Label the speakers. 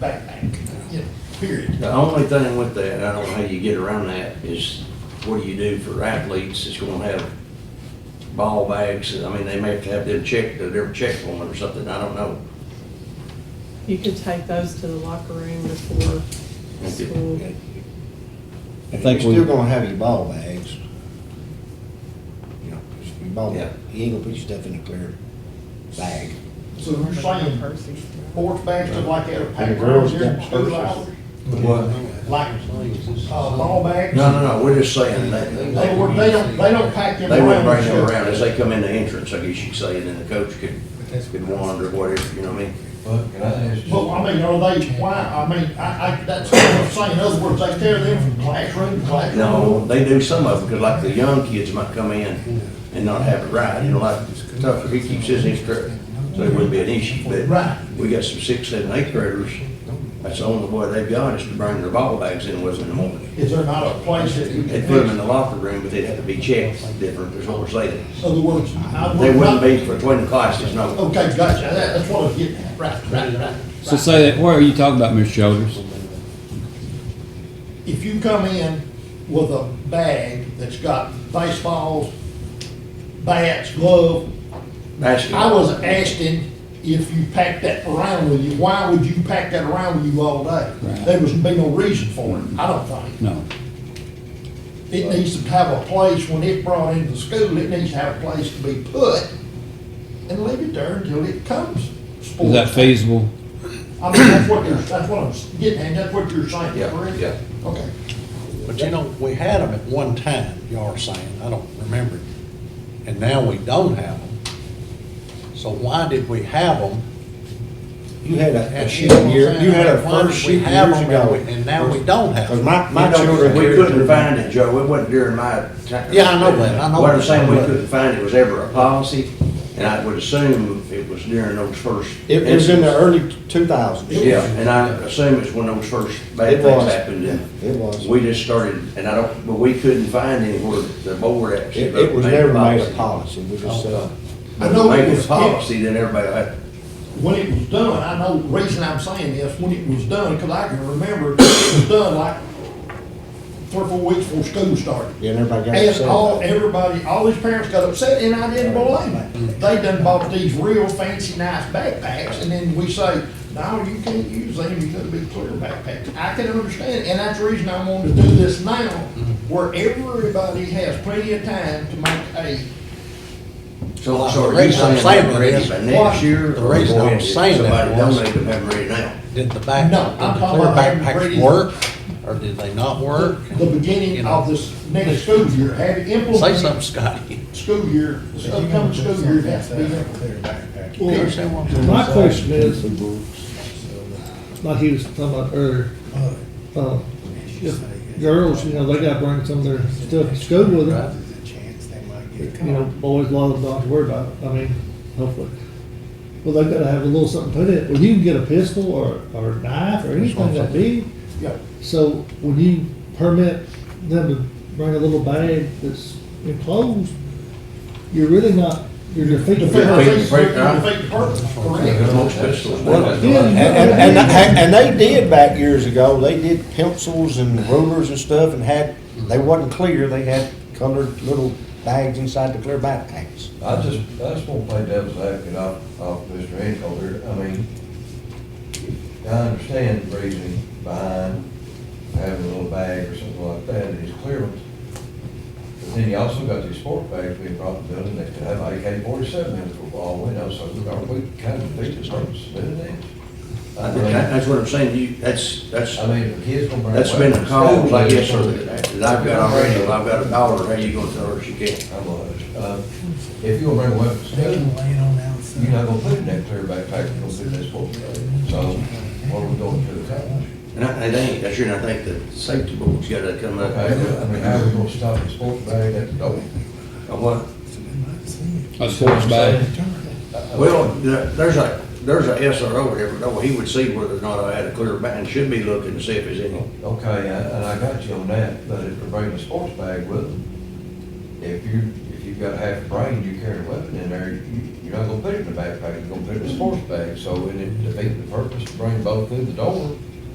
Speaker 1: back bank,
Speaker 2: Yeah, period.
Speaker 1: The only thing with that, I don't know how you get around that, is what do you do for athletes that's gonna have ball bags? I mean, they may have to have them checked, they're checked on or something, I don't know.
Speaker 3: You could take those to the locker room before
Speaker 1: Okay.
Speaker 3: school.
Speaker 4: I think
Speaker 5: You're
Speaker 4: we,
Speaker 5: still gonna have your ball bags. You know, just your ball,
Speaker 1: Yeah.
Speaker 5: you ain't gonna put your stuff in a clear bag.
Speaker 2: So you're saying sports bags, stuff like that, are
Speaker 6: And
Speaker 2: packed
Speaker 6: the girls
Speaker 2: around here in
Speaker 6: got
Speaker 2: school
Speaker 6: purses.
Speaker 2: hours?
Speaker 1: What?
Speaker 2: Like, uh, ball bags?
Speaker 1: No, no, no, we're just saying that,
Speaker 2: They
Speaker 1: they
Speaker 2: were, they don't, they don't pack them
Speaker 1: they wouldn't
Speaker 2: around.
Speaker 1: bring them
Speaker 2: and
Speaker 1: around, as
Speaker 2: stuff.
Speaker 1: they come in the entrance, I guess you could say, and then the coach could, could wander, whatever, you know what I mean?
Speaker 7: But can I ask
Speaker 2: But,
Speaker 7: you,
Speaker 2: I mean, are they, why, I mean, I, I, that's what I'm saying, in other words, they tear them from classroom to classroom.
Speaker 1: No, they do some of them, because like the young kids might come in and not have it right, you know, like Tucker, he keeps his instructor, so it wouldn't be an issue,
Speaker 2: Right.
Speaker 1: but we got some six, seven, eighth graders, that's the only way they've got is to bring their ball bags in with them in the morning.
Speaker 2: Is there not a place that you can
Speaker 1: They'd put them in
Speaker 2: fix?
Speaker 1: the locker room, but they'd have to be checked different, is what we're saying.
Speaker 2: In other words, I
Speaker 1: They
Speaker 2: would
Speaker 1: wouldn't
Speaker 2: not.
Speaker 1: be between the classes, no.
Speaker 2: Okay, gotcha, that, that's what I was getting at, right, right, right.
Speaker 4: so say that, where are you talking about, Mr. Shoulders?
Speaker 2: if you come in with a bag that's got baseballs, bats, glove, I was
Speaker 1: Basketball.
Speaker 2: asking if you packed that around with you, why would you pack that around with you all day? There was be no reason for it, I don't think.
Speaker 4: No.
Speaker 2: It needs to have a place, when it's brought into school, it needs to have a place to be put and leave it there until it comes.
Speaker 4: Is that feasible?
Speaker 2: I mean, that's what you're, that's what I'm getting at, that's what you're saying,
Speaker 1: Yeah,
Speaker 2: correct?
Speaker 1: yeah.
Speaker 2: Okay.
Speaker 6: But you know, we had them at one time, y'all are saying, I don't remember. And now we don't have them. So why did we have them?
Speaker 5: You had a, a
Speaker 6: And
Speaker 5: shooting
Speaker 6: you
Speaker 5: year,
Speaker 6: know what I'm
Speaker 5: you had a
Speaker 6: saying? Why did
Speaker 5: first
Speaker 6: we
Speaker 5: shooting
Speaker 6: have
Speaker 5: years
Speaker 6: them and
Speaker 5: ago.
Speaker 6: we- And now we don't have
Speaker 5: Cause
Speaker 6: them.
Speaker 5: my, my
Speaker 1: You know,
Speaker 5: children.
Speaker 1: We
Speaker 5: here-
Speaker 1: couldn't find it, Joe, it wasn't during my time.
Speaker 6: Yeah, I know that. I know
Speaker 1: What I'm
Speaker 6: that.
Speaker 1: saying, we couldn't find it was ever a policy, and I would assume it was during those first.
Speaker 5: It was in the
Speaker 1: incidents.
Speaker 5: early two thousands.
Speaker 1: Yeah, and I assume it's when those first bad
Speaker 5: It
Speaker 1: things
Speaker 5: was.
Speaker 1: happened, and
Speaker 5: It was.
Speaker 1: we just started, and I don't, but we couldn't find anywhere the board actually.
Speaker 5: It, it was
Speaker 1: made a
Speaker 5: never made a
Speaker 1: policy.
Speaker 5: policy, we
Speaker 1: Oh,
Speaker 5: just, uh,
Speaker 2: I
Speaker 1: But
Speaker 2: know it
Speaker 1: making a
Speaker 2: was-
Speaker 1: policy, then everybody, had-
Speaker 2: when it was done, I know, the reason I'm saying this, when it was done, because I can remember it was done like three or four weeks before school started.
Speaker 5: yeah, and everybody got
Speaker 2: And
Speaker 5: upset.
Speaker 2: all,
Speaker 5: about it.
Speaker 2: everybody, all these parents got upset, and I didn't blame them. They done bought these real fancy, nice backpacks, and then we say, no, you can't use them, you gotta be clear backpacks. I can understand, and that's the reason I wanted to do this now, where everybody has plenty of time to make a
Speaker 1: so,
Speaker 6: Well,
Speaker 1: so
Speaker 6: the
Speaker 1: are you
Speaker 6: reason I'm
Speaker 1: saying they're
Speaker 6: saying
Speaker 1: ready
Speaker 6: is-
Speaker 1: by
Speaker 2: What?
Speaker 1: next year?
Speaker 6: The
Speaker 1: or
Speaker 6: reason
Speaker 1: boy,
Speaker 6: I'm
Speaker 1: if
Speaker 6: saying that
Speaker 1: Somebody don't
Speaker 6: was-
Speaker 1: make them have them ready now.
Speaker 6: Did the back,
Speaker 2: No,
Speaker 6: did
Speaker 2: I'm
Speaker 6: the
Speaker 2: talking
Speaker 6: clear
Speaker 2: about
Speaker 6: backpacks
Speaker 2: reading.
Speaker 6: work or did they not work?
Speaker 2: the beginning of this next school year, have it
Speaker 6: Say
Speaker 2: implemented.
Speaker 6: something, Scotty.
Speaker 2: school year, this upcoming school year, it has to be there.
Speaker 6: You understand what I'm saying?
Speaker 8: My question is, like he was talking about earlier, uh, if girls, you know, they gotta bring some of their stuff to school with them. You know, boys, a lot of them don't have to worry about it, I mean, hopefully. Well, they gotta have a little something put in it, well, you can get a pistol or, or knife or anything that big.
Speaker 2: Yeah.
Speaker 8: So when you permit them to bring a little bag that's enclosed, you're really not, you're defeating.
Speaker 2: Defeat the
Speaker 1: Defeat
Speaker 2: purpose,
Speaker 1: the purpose.
Speaker 2: defeat the purpose,
Speaker 1: Because
Speaker 2: correct.
Speaker 1: most pistols.
Speaker 8: Yeah.
Speaker 5: And, and, and, and they did back years ago, they did pencils and rulers and stuff and had, they wasn't clear, they had colored little bags inside the clear backpacks.
Speaker 7: I just, I just want to play devil's advocate off, off Mr. Hinkle here. I mean, I understand the reasoning behind having a little bag or something like that, and it's clearance. But then you also got these sport bags being brought in the building, they could have AK forty-seven in it for all we know, so are we kind of beat the purpose of doing that?
Speaker 1: I think that- That's what I'm saying, you, that's, that's,
Speaker 7: I mean, the kids gonna bring.
Speaker 1: that's been a
Speaker 7: weapons.
Speaker 1: cause, I guess, or
Speaker 7: Schools-
Speaker 1: that that I've got on radio, I've got a dollar, how you gonna tell her she can't?
Speaker 7: I was. Uh, If you're gonna bring weapons, to school, you're not gonna put it in that clear backpack, you're gonna do this for So, what are we going to the college?
Speaker 1: And I, it ain't, that's sure, and I think the safety board's gotta come up.
Speaker 7: Okay, I mean, how are we gonna stop a sports bag at the door?
Speaker 1: Uh, what?
Speaker 4: A sports bag?
Speaker 1: Uh, Well, there- there's a, there's a SRO there, but no, he would see whether or not I had a clear ban, should be looking to see if it's any.
Speaker 7: Okay, I- and I got you on that, but if you're bringing a sports bag with them, if you, if you've got half a brain, you carry a weapon in there, you, you You're not gonna put it in a backpack, you're gonna put it in a sports bag, so it it defeats the purpose, to bring both through the door.